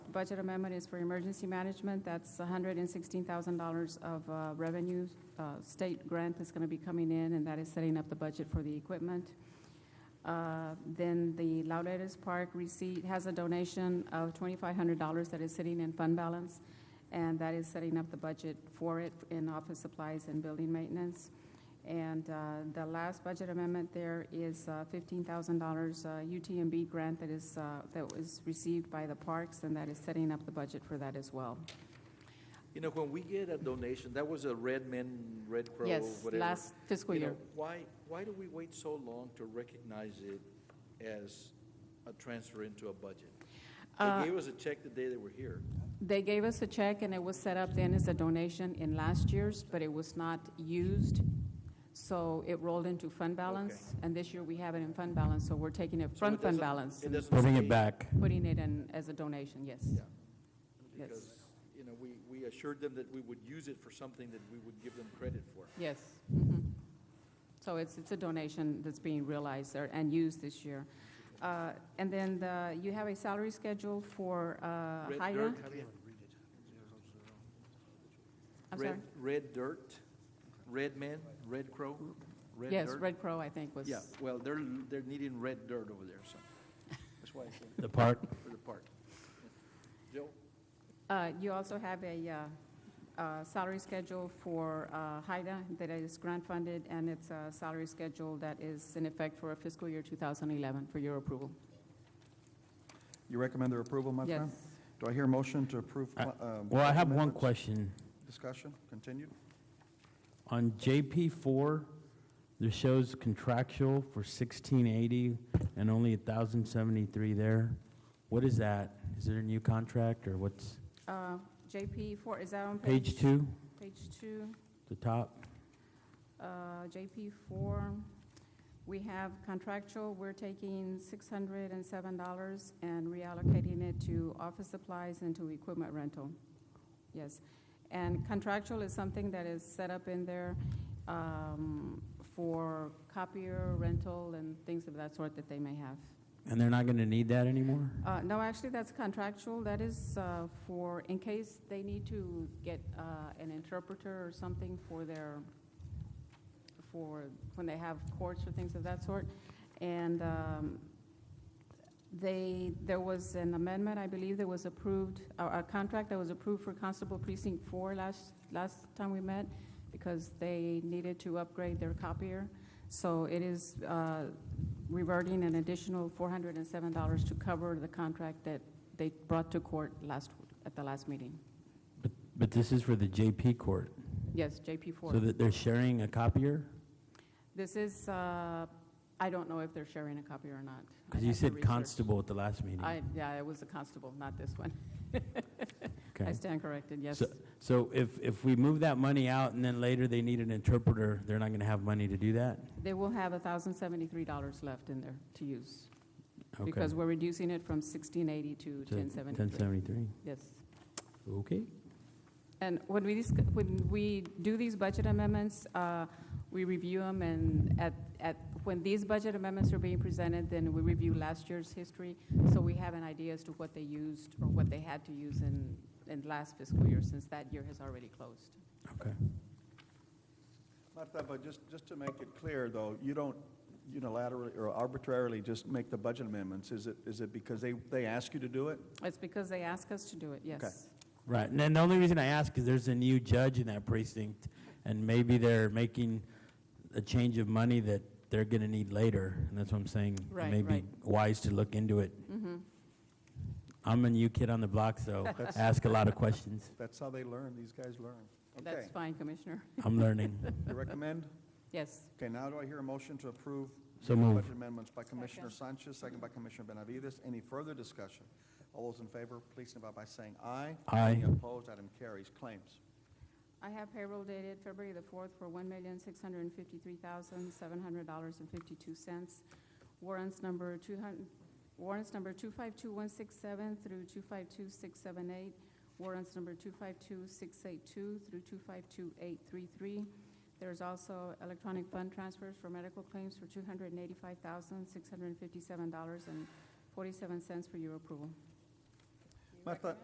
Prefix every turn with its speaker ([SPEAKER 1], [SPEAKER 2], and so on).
[SPEAKER 1] budget amendment is for emergency management. That's $116,000 of uh, revenue. uh, State grant that's going to be coming in, and that is setting up the budget for the equipment. Uh, Then the Laureles Park receipt has a donation of $2,500 that is sitting in fund balance, and that is setting up the budget for it in office supplies and building maintenance. And uh, the last budget amendment there is uh, $15,000 uh, UTMB grant that is, uh, that was received by the parks, and that is setting up the budget for that as well.
[SPEAKER 2] You know, when we get a donation, that was a Red Men, Red Crow, whatever.
[SPEAKER 1] Yes, last fiscal
[SPEAKER 2] You know,
[SPEAKER 1] year.
[SPEAKER 2] Why, why do we wait so long to recognize it as a transfer into a budget? They gave us a check the day they were here.
[SPEAKER 1] Uh, They gave us a check, and it was set up then as a donation in last year's, but it was not used, so it rolled into fund balance. And this year, we have it in fund balance, so we're taking it
[SPEAKER 2] So
[SPEAKER 1] from
[SPEAKER 2] it
[SPEAKER 1] fund
[SPEAKER 2] doesn't-
[SPEAKER 1] balance
[SPEAKER 2] It
[SPEAKER 1] and
[SPEAKER 2] doesn't
[SPEAKER 3] Moving
[SPEAKER 2] stay-
[SPEAKER 3] it back.
[SPEAKER 1] putting it in as a donation, yes.
[SPEAKER 2] Yeah.
[SPEAKER 1] Yes.
[SPEAKER 2] Because, you know, we, we assured them that we would use it for something that we would give them credit for.
[SPEAKER 1] Yes. mhm. So it's, it's a donation that's being realized there and used this year. Uh, And then the, you have a salary schedule for uh,
[SPEAKER 2] Red
[SPEAKER 1] Haya?
[SPEAKER 2] dirt, Javier.
[SPEAKER 1] I'm
[SPEAKER 2] Red-
[SPEAKER 1] sorry?
[SPEAKER 2] Red dirt, red men, red crow, red dirt.
[SPEAKER 1] Yes, Red Crow, I think, was.
[SPEAKER 2] Yeah, well, they're, they're needing red dirt over there, so that's why I said
[SPEAKER 3] The park,
[SPEAKER 2] for the park. Joe?
[SPEAKER 1] Uh, You also have a uh, uh, salary schedule for uh, HIDA that is grant-funded, and it's a salary schedule that is in effect for fiscal year 2011 for your approval.
[SPEAKER 4] You recommend their approval, my
[SPEAKER 1] Yes.
[SPEAKER 4] friend? Do I hear a motion to approve?
[SPEAKER 3] I-
[SPEAKER 4] um,
[SPEAKER 3] Uh, well, I have one
[SPEAKER 4] amendments?
[SPEAKER 3] question.
[SPEAKER 4] Discussion, continued?
[SPEAKER 3] On JP four, there shows contractual for sixteen eighty and only thousand seventy-three there. What is that? Is it a new contract or what's,
[SPEAKER 1] Uh, JP 4, is that on page?
[SPEAKER 3] page two,
[SPEAKER 1] Page two.
[SPEAKER 3] the top?
[SPEAKER 1] Uh, JP four, we have contractual, we're taking six hundred and seven dollars and reallocating it to office supplies and to equipment rental. Yes, and contractual is something that is set up in there, um, for copier rental and things of that sort that they may have.
[SPEAKER 3] And they're not gonna need that anymore?
[SPEAKER 1] Uh, no, actually, that's contractual. That is, uh, for, in case they need to get, uh, an interpreter or something for their, for, when they have courts or things of that sort. And, um, they, there was an amendment, I believe, that was approved, a, a contract that was approved for Constable Precinct Four last, last time we met, because they needed to upgrade their copier. So it is, uh, reverting an additional $407 to cover the contract that they brought to court last, at the last meeting.
[SPEAKER 3] But, but this is for the JP court,
[SPEAKER 1] Yes, JP
[SPEAKER 3] so
[SPEAKER 1] 4.
[SPEAKER 3] that they're sharing a copier?
[SPEAKER 1] This is, uh, I don't know if they're sharing a copy or not. I'd
[SPEAKER 3] Because you
[SPEAKER 1] have to
[SPEAKER 3] said
[SPEAKER 1] research.
[SPEAKER 3] constable at the last meeting.
[SPEAKER 1] I, yeah, it was the constable, not this one. I
[SPEAKER 3] Okay.
[SPEAKER 1] stand corrected, yes.
[SPEAKER 3] So- So if, if we move that money out and then later they need an interpreter, they're not going to have money to do that?
[SPEAKER 1] They will have $1,073 left in there to use,
[SPEAKER 3] Okay.
[SPEAKER 1] because we're reducing it from 1680 to
[SPEAKER 3] So
[SPEAKER 1] 1073.
[SPEAKER 3] 1073,
[SPEAKER 1] Yes.
[SPEAKER 3] okay.
[SPEAKER 1] And when we, disc- when we do these budget amendments, uh, we review them, and at, at, when these budget amendments are being presented, then we review last year's history, so we have an idea as to what they used or what they had to use in, in last fiscal year, since that year has already closed.
[SPEAKER 3] Okay.
[SPEAKER 4] Martha, but just, just to make it clear, though, you don't unilaterally or arbitrarily just make the budget amendments. Is it, is it because they, they ask you to do it?
[SPEAKER 1] It's because they ask us to do it,
[SPEAKER 4] Okay.
[SPEAKER 1] yes.
[SPEAKER 3] Right, and then the only reason I ask is there's a new judge in that precinct, and maybe they're making a change of money that they're going to need later, and that's what I'm saying. it
[SPEAKER 1] Right,
[SPEAKER 3] may be
[SPEAKER 1] right.
[SPEAKER 3] wise to look into it.
[SPEAKER 1] Mm-hmm.
[SPEAKER 3] I'm a new kid on the block, so
[SPEAKER 4] That's-
[SPEAKER 3] I ask a lot of questions.
[SPEAKER 4] That's how they learn, these guys learn. Okay.
[SPEAKER 1] That's fine, Commissioner.
[SPEAKER 3] I'm learning.
[SPEAKER 4] You recommend?
[SPEAKER 1] Yes.
[SPEAKER 4] Okay, now do I hear a motion to approve?
[SPEAKER 3] So
[SPEAKER 4] the
[SPEAKER 3] moved.
[SPEAKER 4] Budget amendments by Commissioner Sanchez, second by Commissioner Benavides. Any further discussion? All those in favor, please signify by saying aye.
[SPEAKER 3] Aye.
[SPEAKER 4] Any opposed, item carries. Claims.
[SPEAKER 1] I have payroll dated February the 4th for $1,653,700.52. Warrants number 200, warrants number 252167 through 252678, warrants number 252682 through 252833. There's also electronic fund transfers for medical claims for $285,657.47 for your approval.
[SPEAKER 4] Martha,